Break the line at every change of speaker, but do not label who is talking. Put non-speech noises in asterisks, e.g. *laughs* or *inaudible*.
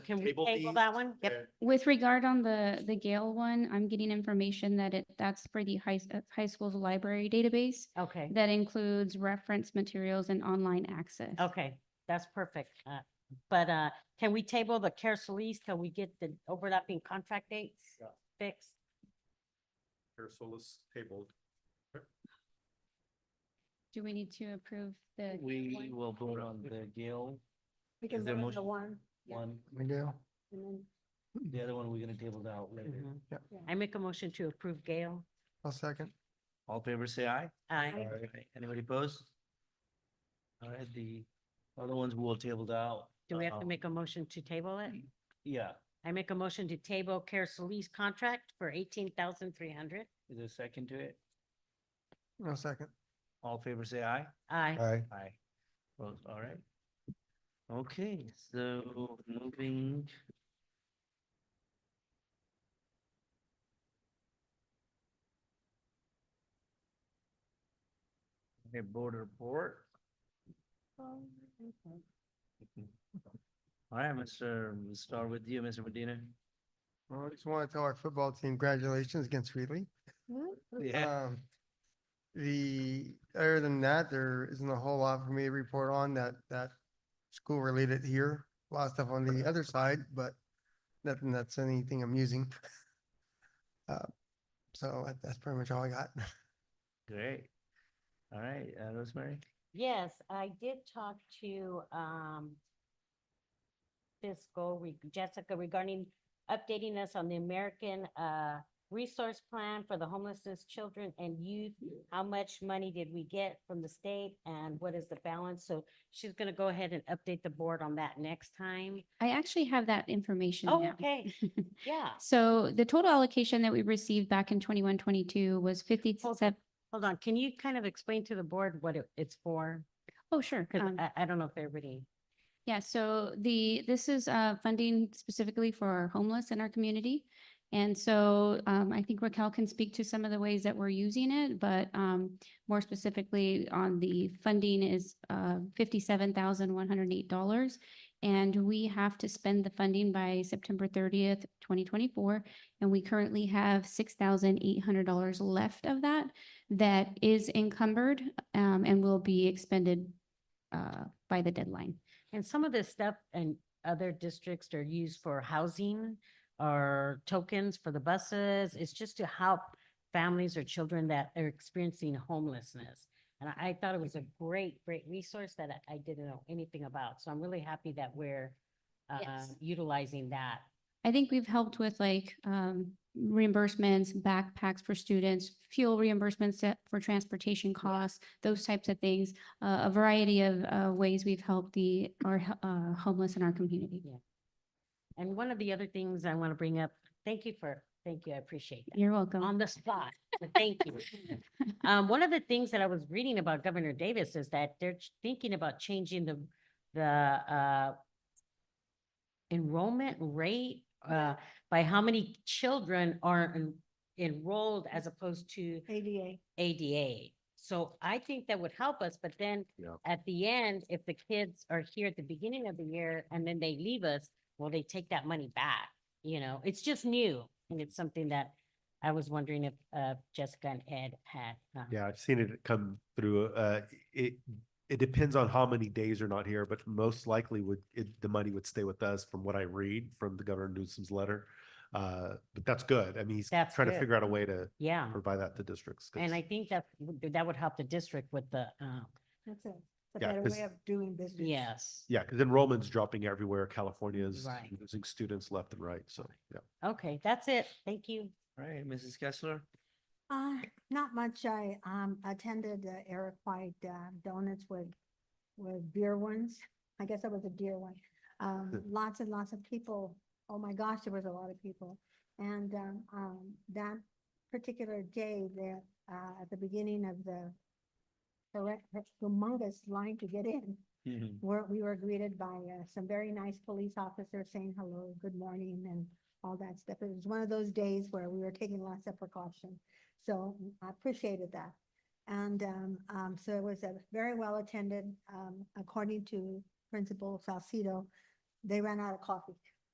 can we
Table
table
these.
that one? Yep.
With regard on the, the Gale one, I'm getting information that it, that's for the high, s- uh, high school's library database.
Okay,
That includes reference materials and online access.
okay, that's perfect. Uh, But uh, can we table the care Solis till we get the overlapping contract dates
Yeah.
fixed?
Ursulus tabled.
Do we need to approve the?
We
one?
will vote on the Gale
Because
there
that
motion?
was the one. yeah,
one.
Miguel,
and then-
The other one we're gonna table out later.
Mhm.
Yeah.
I make a motion to approve Gail. Uh,
I'll second.
All in favor say aye.
Aye.
Aye. Anybody opposed? All right, the other ones we'll table out.
Do we have to
Um,
make a motion to table it?
Yeah,
I make a motion to table care Solis contract for eighteen thousand three hundred.
is there a second to it?
I'll second.
All in favor say aye.
Aye.
Aye.
Aye. Well, all right. Okay, so moving. Okay, board report. All right, Mr. We'll Start with you, Mr. Medina.
Well, I just want to tell our football team congratulations against Wheatley. Um, the, other than that, there isn't a whole lot for me to report on that, that school related here. A lot of stuff on the other side, but nothing that's anything amusing. *laughs* Uh, So that- that's pretty much all I got.
Great. All right, uh, Rosemary.
Yes, I did talk to um fiscal re- Jessica regarding updating us on the American uh resource plan for the homelessness children and youth. How much money did we get from the state and what is the balance? So she's gonna go ahead and update the board on that next time.
I actually have that information
Oh,
now.
okay. Yeah,
*laughs* So the total allocation that we received back in twenty-one, twenty-two was
Hold-
fifty-seven.
hold on. Can you kind of explain to the board what it- it's for?
Oh, sure.
Cause
um,
I I don't know if everybody.
Yeah, so the, this is uh, funding specifically for our homeless in our community. And so um, I think Raquel can speak to some of the ways that we're using it, but um, more specifically on the funding is uh, $57,108. And we have to spend the funding by September 30th, 2024. And we currently have $6,800 left of that that is encumbered um, and will be expended uh, by the deadline.
And some of this stuff and other districts are used for housing or tokens for the buses. It's just to help families or children that are experiencing homelessness. And I, I thought it was a great, great resource that I, I didn't know anything about. So I'm really happy that we're uh,
Yes.
utilizing that.
I think we've helped with like um, reimbursements, backpacks for students, fuel reimbursements that- for transportation costs, those types of things. uh, A variety of uh, ways we've helped the, our h- uh, homeless in our community.
And one of the other things I want to bring up, thank you for, thank you, I appreciate that.
You're welcome.
Um,
On the spot. *laughs* but Thank you. Um, one of the things that I was reading about Governor Davis is that they're ch- thinking about changing the, the, uh, enrollment rate, uh, by how many children are en- enrolled as opposed to
ADA.
ADA. So I think that would help us, but then
Yeah.
at the end, if the kids are here at the beginning of the year and then they leave us, will they take that money back? You know, it's just new and it's something that I was wondering if uh Jessica and Ed had. uh,
Yeah, I've seen it come through. Uh, it, it depends on how many days are not here, but most likely would, it, the money would stay with us from what I read from the Governor Newsom's letter. Uh, but that's good. I mean, he's
That's
trying to
good.
figure out a way to
Yeah,
provide that to districts. 'cause-
and I think that would- that would help the district with the uh,
That's a, it's a
Yeah,
better
'cause-
way of doing business.
yes.
Yeah, because enrollment's dropping everywhere. California's
Right.
losing students left and right, so, yeah.
Okay, that's it. Thank you.
All right, Mrs. Kessler.
Uh, not much. I, um, attended uh, Eric White uh, Donuts with, with beer ones. I guess that was a deer one. Um, lots and lots of people. Oh my gosh, there was a lot of people. And, um, um, that particular day that, uh, at the beginning of the correct, humongous line to get in,
Mm-hmm.
were, we were greeted by uh, some very nice police officers saying hello, good morning, and all that stuff. It was one of those days where we were taking lots of precaution. So I appreciated that. And um, um, so it was a very well attended, um, according to Principal Salcido, they ran out of coffee.